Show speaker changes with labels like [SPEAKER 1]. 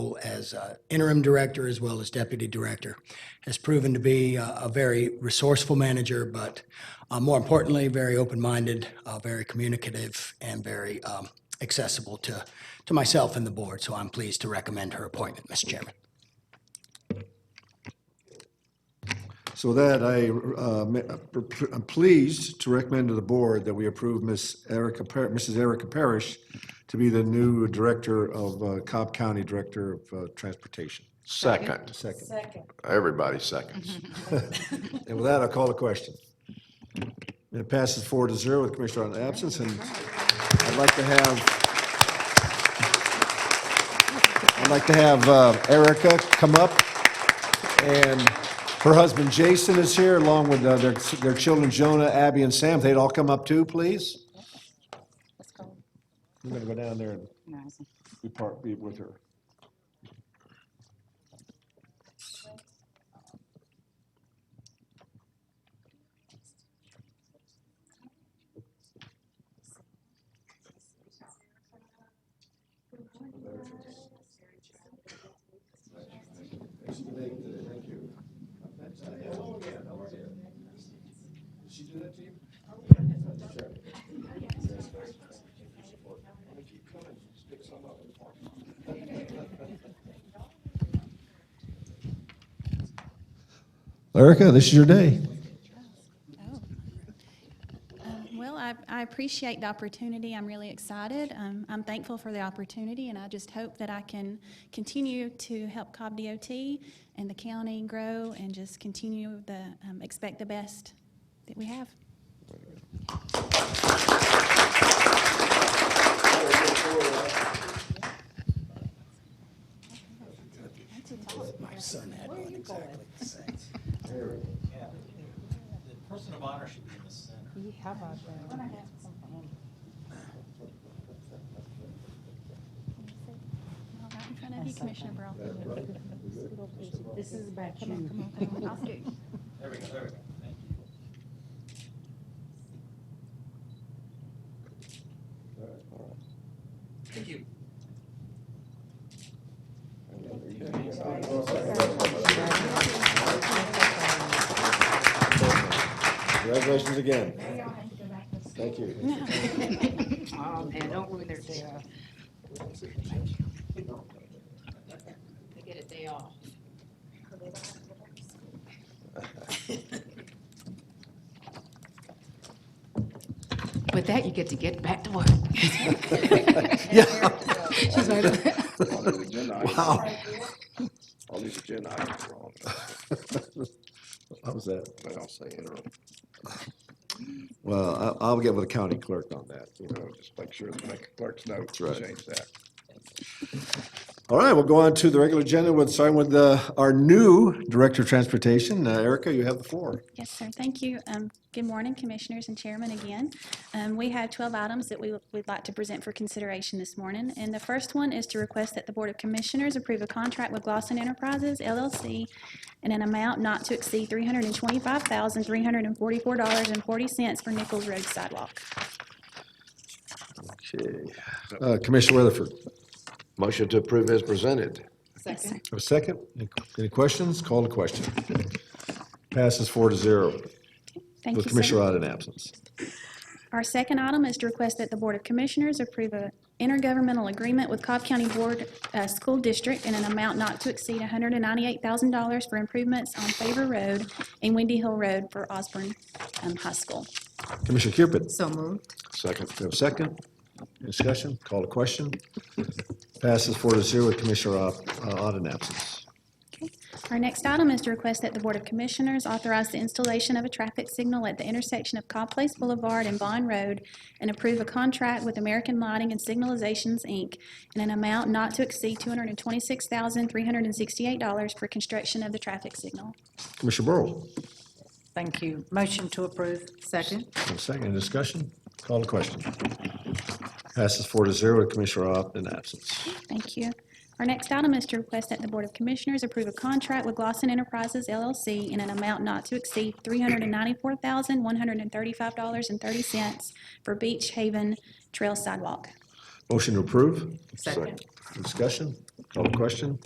[SPEAKER 1] role as uh, interim director as well as deputy director. Has proven to be uh, a very resourceful manager, but uh, more importantly, very open-minded, uh, very communicative, and very um, accessible to, to myself and the board. So I'm pleased to recommend her appointment, Mr. Chairman.
[SPEAKER 2] So with that, I, uh, ma- I'm pleased to recommend to the board that we approve Miss Erica, Par- Mrs. Erica Parrish to be the new director of, uh, Cobb County Director of uh, Transportation.
[SPEAKER 3] Second.
[SPEAKER 2] Second.
[SPEAKER 3] Everybody seconds.
[SPEAKER 2] And with that, I'll call the question. And It passes four to zero with Commissioner on absence, and I'd like to have, I'd like to have uh, Erica come up, and her husband Jason is here, along with uh, their, their children Jonah, Abby, and Sam. If They'd all come up too, please.
[SPEAKER 4] Let's go.
[SPEAKER 2] We're gonna go down there and
[SPEAKER 4] Nice.
[SPEAKER 2] be part, be with her. Erica, this is your day.
[SPEAKER 5] Oh. Um, Well, I, I appreciate the opportunity. I'm really excited. Um, I'm thankful for the opportunity, and I just hope that I can continue to help Cobb DOT and the county grow and just continue the, um, expect the best that we have.
[SPEAKER 1] My son had one exactly the same.
[SPEAKER 6] Yeah. The person of honor should be in the center.
[SPEAKER 4] How about that?
[SPEAKER 5] Well, Right in front of you, Commissioner Brawl.
[SPEAKER 4] This is about you.
[SPEAKER 6] There we go, there we go. Thank you. Thank you.
[SPEAKER 2] Congratulations again. Thank you.
[SPEAKER 4] Oh, man, don't ruin their day off. They get a day off. With that, you get to get back to work.
[SPEAKER 2] Yeah.
[SPEAKER 4] She's like,
[SPEAKER 7] All these agenda
[SPEAKER 2] Wow.
[SPEAKER 7] items, all these agenda items are on,
[SPEAKER 2] How was that?
[SPEAKER 7] but I'll say interim,
[SPEAKER 2] Well, I- I'll get with the county clerk on that, you
[SPEAKER 7] you
[SPEAKER 2] know.
[SPEAKER 7] know, just make sure the make clerks know
[SPEAKER 2] That's
[SPEAKER 7] to
[SPEAKER 2] right.
[SPEAKER 7] change that.
[SPEAKER 2] All right, we'll go on to the regular agenda with, starting with uh, our new Director of Transportation. Uh, Erica, you have the floor.
[SPEAKER 5] Yes, sir. Thank you. Um, Good morning, Commissioners and Chairman again. Um, We have 12 items that we would like to present for consideration this morning. And the first one is to request that the Board of Commissioners approve a contract with Glosson Enterprises LLC in an amount not to exceed $325,344.40 for Nichols Road sidewalk.
[SPEAKER 2] Uh, Commissioner Weatherford,
[SPEAKER 3] Motion to approve is presented.
[SPEAKER 4] second.
[SPEAKER 2] have a second? Any- Any questions? Call to question. Passes four to zero
[SPEAKER 5] Thank you,
[SPEAKER 2] with
[SPEAKER 5] sir.
[SPEAKER 2] Commissioner Rod in absence.
[SPEAKER 5] Our second item is to request that the Board of Commissioners approve an intergovernmental agreement with Cobb County Board uh, School District in an amount not to exceed $198,000 for improvements on Favor Road and Windy Hill Road for Osborne um, High School.
[SPEAKER 2] Commissioner Cupid,
[SPEAKER 4] So moved.
[SPEAKER 3] Second.
[SPEAKER 2] you have a second? Discussion? Call to question. Passes four to zero with Commissioner Rod in absence.
[SPEAKER 5] Our next item is to request that the Board of Commissioners authorize the installation of a traffic signal at the intersection of Cobb Place Boulevard and Bond Road and approve a contract with American Lighting and Signalizations, Inc. in an amount not to exceed $226,368 for construction of the traffic signal.
[SPEAKER 2] Commissioner Burrow,
[SPEAKER 4] Thank you. Motion to approve. Second.
[SPEAKER 2] have a second? Any discussion? Call to question. Passes four to zero with Commissioner Rod in absence.
[SPEAKER 5] Thank you. Our next item is to request that the Board of Commissioners approve a contract with Glosson Enterprises LLC in an amount not to exceed $394,135.30 for Beach Haven Trail Sidewalk.
[SPEAKER 2] Motion to approve?
[SPEAKER 4] Second.
[SPEAKER 2] Discussion? Call to question?